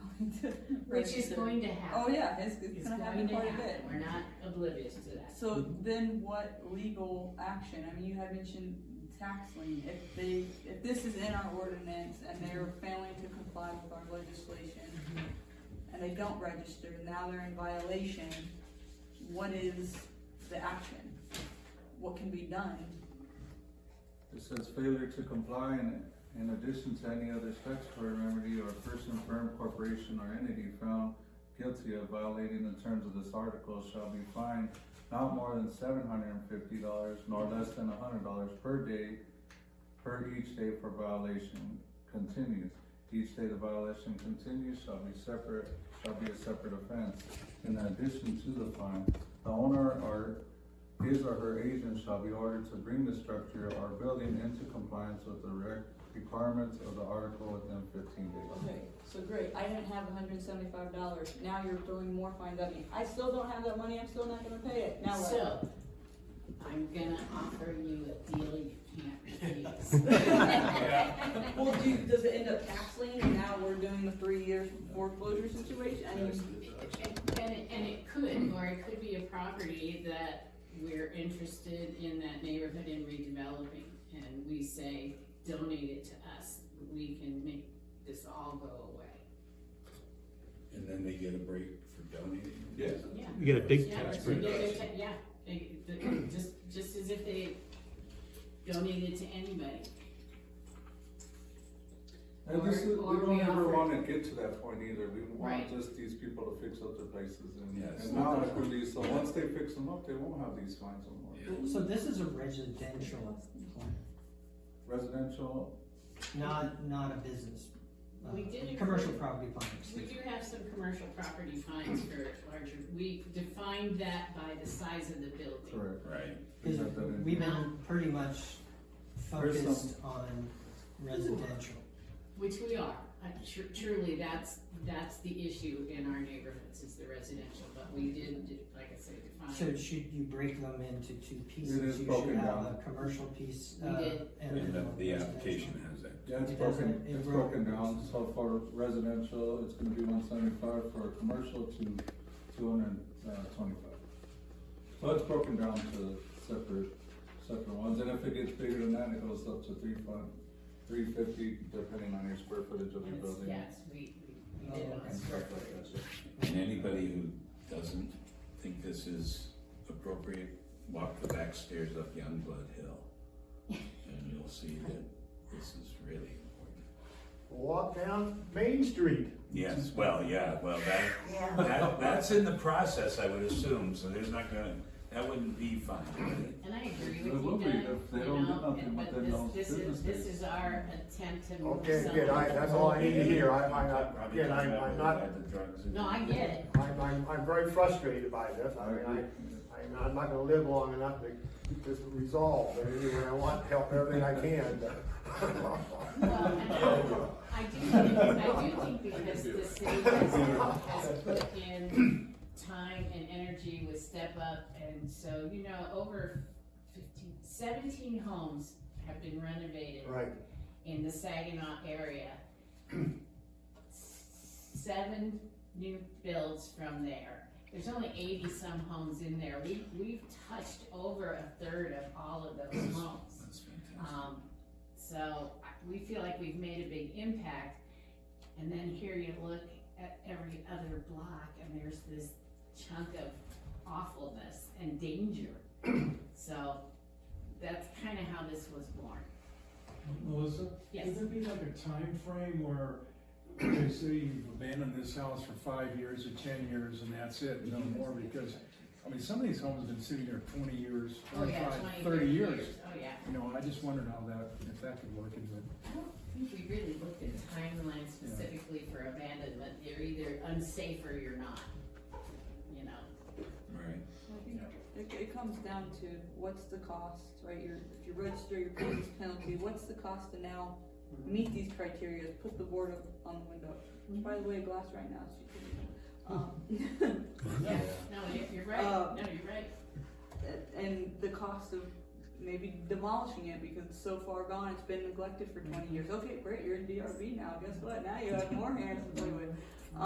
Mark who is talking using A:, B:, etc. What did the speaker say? A: going to.
B: Which is going to
A: Oh,
B: happen.
A: yeah, it's, it's
B: It's
A: gonna happen
B: going to
A: quite a bit.
B: happen. We're not oblivious to that.
A: So then what legal action, I mean, you had mentioned tax lien, if they, if this is in our ordinance and they're failing to comply with our legislation and they don't register, now they're in violation, what is the action? What can be done?
C: It says failure to comply in, in addition to any other statutory remedy or person, firm, corporation, or entity found guilty of violating the terms of this article shall be fined not more than seven hundred and fifty dollars nor less than hundred dollars per day, per each day for violation continues. Each day the violation continues shall be separate, shall be a separate offense. In addition to the fine, the owner or his or her agent shall be ordered to bring the structure or building into compliance with the rec- requirements of the article within fifteen days.
A: Okay, so great, I didn't have hundred and seventy-five dollars, now you're throwing more fines at me, I still don't have that money, I'm still not gonna pay it, now what?
B: So, I'm gonna offer you a deal you can't refuse.
A: Well, do, does it end up tax lien, and now we're doing the three years foreclosure situation, I mean.
B: And, it- and it could, or it could be a property that we're interested in that neighborhood in redeveloping, and we say, donate it to us, we can make this all go away.
D: And then they get a break for donating?
E: Yeah.
B: Yeah.
F: You get a big
B: Yeah,
F: tax
B: so
F: break.
B: they- they ta- Yeah, they- they- just, just as if they donated to anybody.
C: And this is,
B: Or-
C: we
B: or
C: don't
B: we
C: ever
B: offer-
C: wanna get to that point either, we
B: Right.
C: want just these people to fix up their places and,
D: Yes.
C: and not like release, so once they fix them up, they won't have these fines
D: Yeah.
C: anymore.
G: So this is a residential plan,
C: Residential,
G: not, not a business. uh,
B: We did agree-
G: Commercial property plan,
B: We
G: excuse me.
B: do have some commercial property fines for larger, we defined that by the size of the building.
C: correct.
D: Right.
C: We
G: Because
C: got that in.
G: we've been pretty much
C: There's some-
G: focused on residential.
B: Which we are, Uh, tr- truly, that's, that's the issue in our neighborhoods, is the residential, but we did, do- like I said,
G: So
B: define.
G: should you break them into two
C: It is
G: pieces? You
C: broken
G: should have
C: down.
G: a commercial piece.
B: We
G: uh,
B: did.
G: and
D: And
G: then
D: the,
G: a
D: the
G: residential.
D: application has that.
C: Yeah, it's
G: It doesn't-
C: broken,
G: it
C: it's
G: broke-
C: broken down, so for residential, it's gonna be one seventy-five, for commercial to two hundred and twenty-five. So it's broken down to separate, separate ones, and if it gets bigger than that, it goes up to three fun, three fifty, depending on your square footage of your
B: Yes,
C: building.
B: Yes, we, we- we did
G: Oh,
B: on
G: okay.
B: square footage.
D: And anybody who doesn't think this is appropriate, walk the back stairs up Youngblood Hill. And you'll see that this is really important.
H: Walk down Main Street.
D: Yes, well, yeah, well, that, that, that's in the process, I would assume, so there's not gonna, that wouldn't be fine, would it?
B: And I agree
C: It
B: with
C: will
B: you,
C: be
B: Doug,
C: if they
B: you
C: don't do
B: know,
C: nothing
B: and-
C: with
B: but
C: their own
B: this, this is, this
C: businesses.
B: is our attempt to move
H: Okay, good, I,
B: something.
H: that's all I need to hear, I, I, I-
D: Probably
H: again, I,
D: comes out
H: I'm
D: with
H: not,
D: the drugs.
B: No, I get it,
H: I'm, I'm, I'm very frustrated by this, I mean, I, I'm not, I'm not gonna live long enough to get this resolved, but anyway, I want to help everything I can.
B: Well, I I do think, I do think because the city has, has put in time and energy with Step Up, and so, you know, over fifteen, seventeen homes have been renovated
H: Right,
B: in the Saginaw area. Seven new builds from there. There's only eighty-some homes in there. We, we've touched over a third of all of those homes.
D: That's fantastic.
B: Um, so I- we feel like we've made a big impact. And then here you look at every other block and there's this chunk of awfulness and danger. So that's kind of how this was born.
I: Melissa?
B: Yes.
I: Would there be like a time frame where they say you've abandoned this house for five years or ten years and that's it, no more? Because, I mean, some of these homes have been sitting there twenty years,
B: Oh, yeah,
I: twenty-five,
B: 20,
I: thirty years.
B: Oh, yeah.
I: You know, I just wondered how that, if that could work into it.
B: I don't think we really looked at timeline specifically for abandonment. You're either unsafe or you're not, you know?
D: Right.
A: I think It, it comes down to what's the cost, right, your, if you register your business penalty, what's the cost to now meet these criteria, put the board up on the window. By the way, glass right now, so you can, um,
B: Yeah, no, you're, you're right.
A: Um,
B: No, you're right.
A: and the cost of maybe demolishing it because it's so far gone, it's been neglected for twenty years. Okay, great, you're in DRB now, guess what, now you have more hands to play with.